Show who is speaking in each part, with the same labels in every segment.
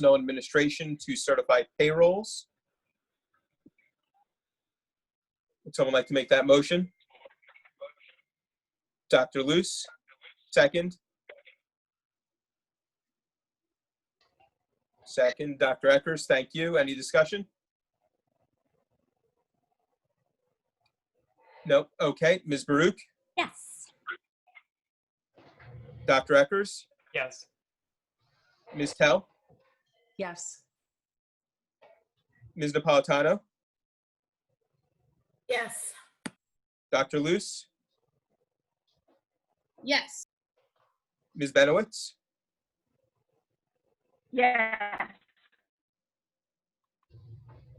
Speaker 1: Personnel Administration to certify payrolls. Would someone like to make that motion? Dr. Luce, second. Second, Dr. Eckers, thank you. Any discussion? No, okay. Ms. Baruch,
Speaker 2: Yes.
Speaker 1: Dr. Eckers,
Speaker 3: Yes.
Speaker 1: Ms. Tell,
Speaker 4: Yes.
Speaker 1: Ms. Napolitano,
Speaker 4: Yes.
Speaker 1: Dr. Luce,
Speaker 5: Yes.
Speaker 1: Ms. Benowitz,
Speaker 5: Yes.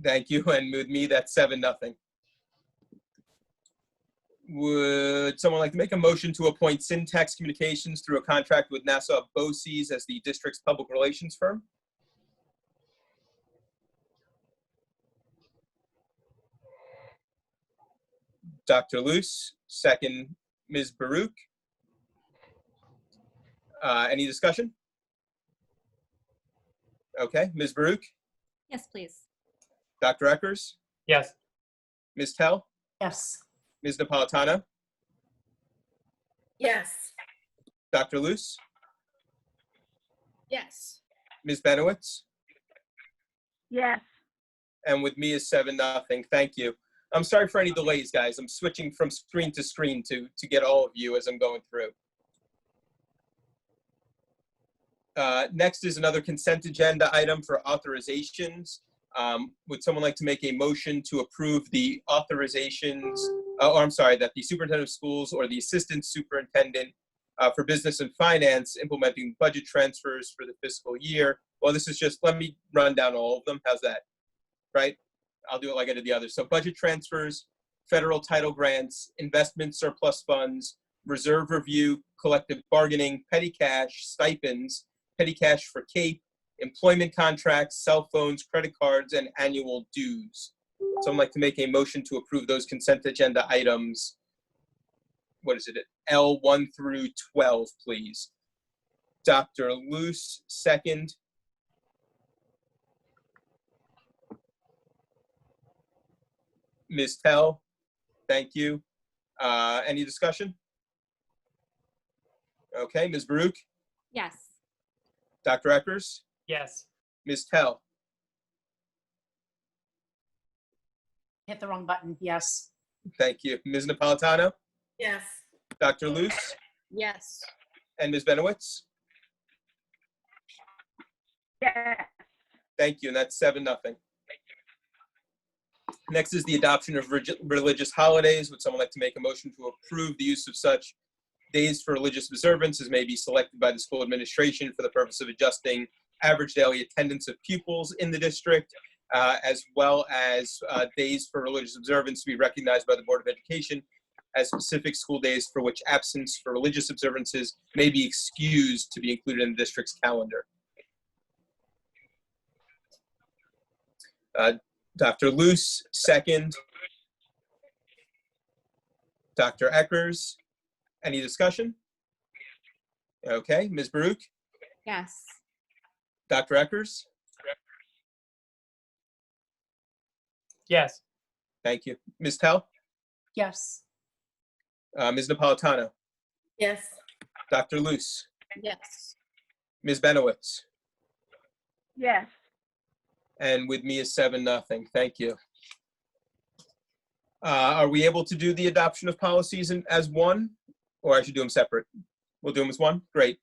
Speaker 1: Thank you, and with me, that's seven, nothing. Would someone like to make a motion to appoint Syntax Communications through a contract with Nassau BOCES as the district's public relations firm? Dr. Luce, second, Ms. Baruch. Uh, Any discussion? Okay, Ms. Baruch,
Speaker 2: Yes, please.
Speaker 1: Dr. Eckers?
Speaker 3: Yes.
Speaker 1: Ms. Tell,
Speaker 4: Yes.
Speaker 1: Ms. Napolitano,
Speaker 4: Yes.
Speaker 1: Dr. Luce,
Speaker 5: Yes.
Speaker 1: Ms. Benowitz,
Speaker 5: Yes.
Speaker 1: and with me is seven nothing. Thank you. I'm sorry for any delays, guys. I'm switching from screen to screen to to get all of you as I'm going through. Uh, next is another consent agenda item for authorizations. Um, would someone like to make a motion to approve the authorizations? Oh, I'm sorry, that the superintendent of schools or the assistant superintendent uh, for business and finance implementing budget transfers for the fiscal year. Well, this is just let me run down all of them. How's that? right? I'll do it like I did the others. So budget transfers, federal title grants, investment surplus funds, reserve review, collective bargaining, petty cash, stipends, petty cash for CAPE, employment contracts, cell phones, credit cards, and annual dues. So I'd like to make a motion to approve those consent agenda items. What is it? L one through twelve, please. Dr. Luce, second. Ms. Tell, thank you. Uh, Any discussion? Okay, Ms. Baruch,
Speaker 2: Yes.
Speaker 1: Dr. Eckers,
Speaker 3: Yes.
Speaker 1: Ms. Tell,
Speaker 4: Hit the wrong button. Yes.
Speaker 1: thank you. Ms. Napolitano,
Speaker 4: Yes.
Speaker 1: Dr. Luce,
Speaker 5: Yes.
Speaker 1: and Ms. Benowitz,
Speaker 5: Yes.
Speaker 1: thank you, and that's seven, nothing. Next is the adoption of regi- religious holidays. Would someone like to make a motion to approve the use of such days for religious observance as may be selected by the school administration for the purpose of adjusting average daily attendance of pupils in the district, uh, as well as uh, days for religious observance to be recognized by the Board of Education as specific school days for which absence for religious observances may be excused to be included in the district's calendar. Uh, Dr. Luce, second. Dr. Eckers, any discussion? Okay, Ms. Baruch,
Speaker 2: Yes.
Speaker 1: Dr. Eckers,
Speaker 3: Yes.
Speaker 1: thank you. Ms. Tell,
Speaker 4: Yes.
Speaker 1: uh, Ms. Napolitano,
Speaker 4: Yes.
Speaker 1: Dr. Luce,
Speaker 5: Yes.
Speaker 1: Ms. Benowitz,
Speaker 5: Yes.
Speaker 1: and with me is seven, nothing. Thank you. Uh, are we able to do the adoption of policies in, as one, or I should do them separate? We'll do them as one. Great.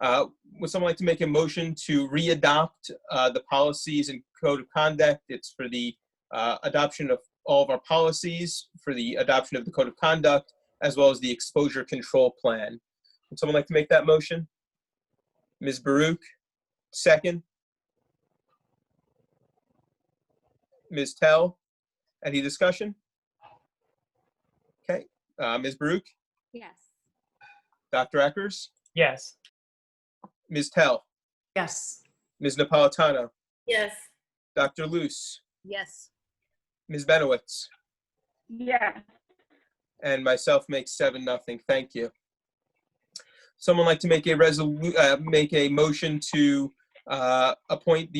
Speaker 1: Uh, would someone like to make a motion to re-adopt uh, the policies and code of conduct? It's for the uh, adoption of all of our policies, for the adoption of the code of conduct, as well as the exposure control plan. Would someone like to make that motion? Ms. Baruch, second. Ms. Tell. Any discussion? Okay, uh, Ms. Baruch,
Speaker 2: Yes.
Speaker 1: Dr. Eckers,
Speaker 3: Yes.
Speaker 1: Ms. Tell,
Speaker 4: Yes.
Speaker 1: Ms. Napolitano,
Speaker 4: Yes.
Speaker 1: Dr. Luce,
Speaker 5: Yes.
Speaker 1: Ms. Benowitz,
Speaker 5: Yes.
Speaker 1: and myself makes seven, nothing. Thank you. Someone like to make a resolu, uh, make a motion to, uh, appoint the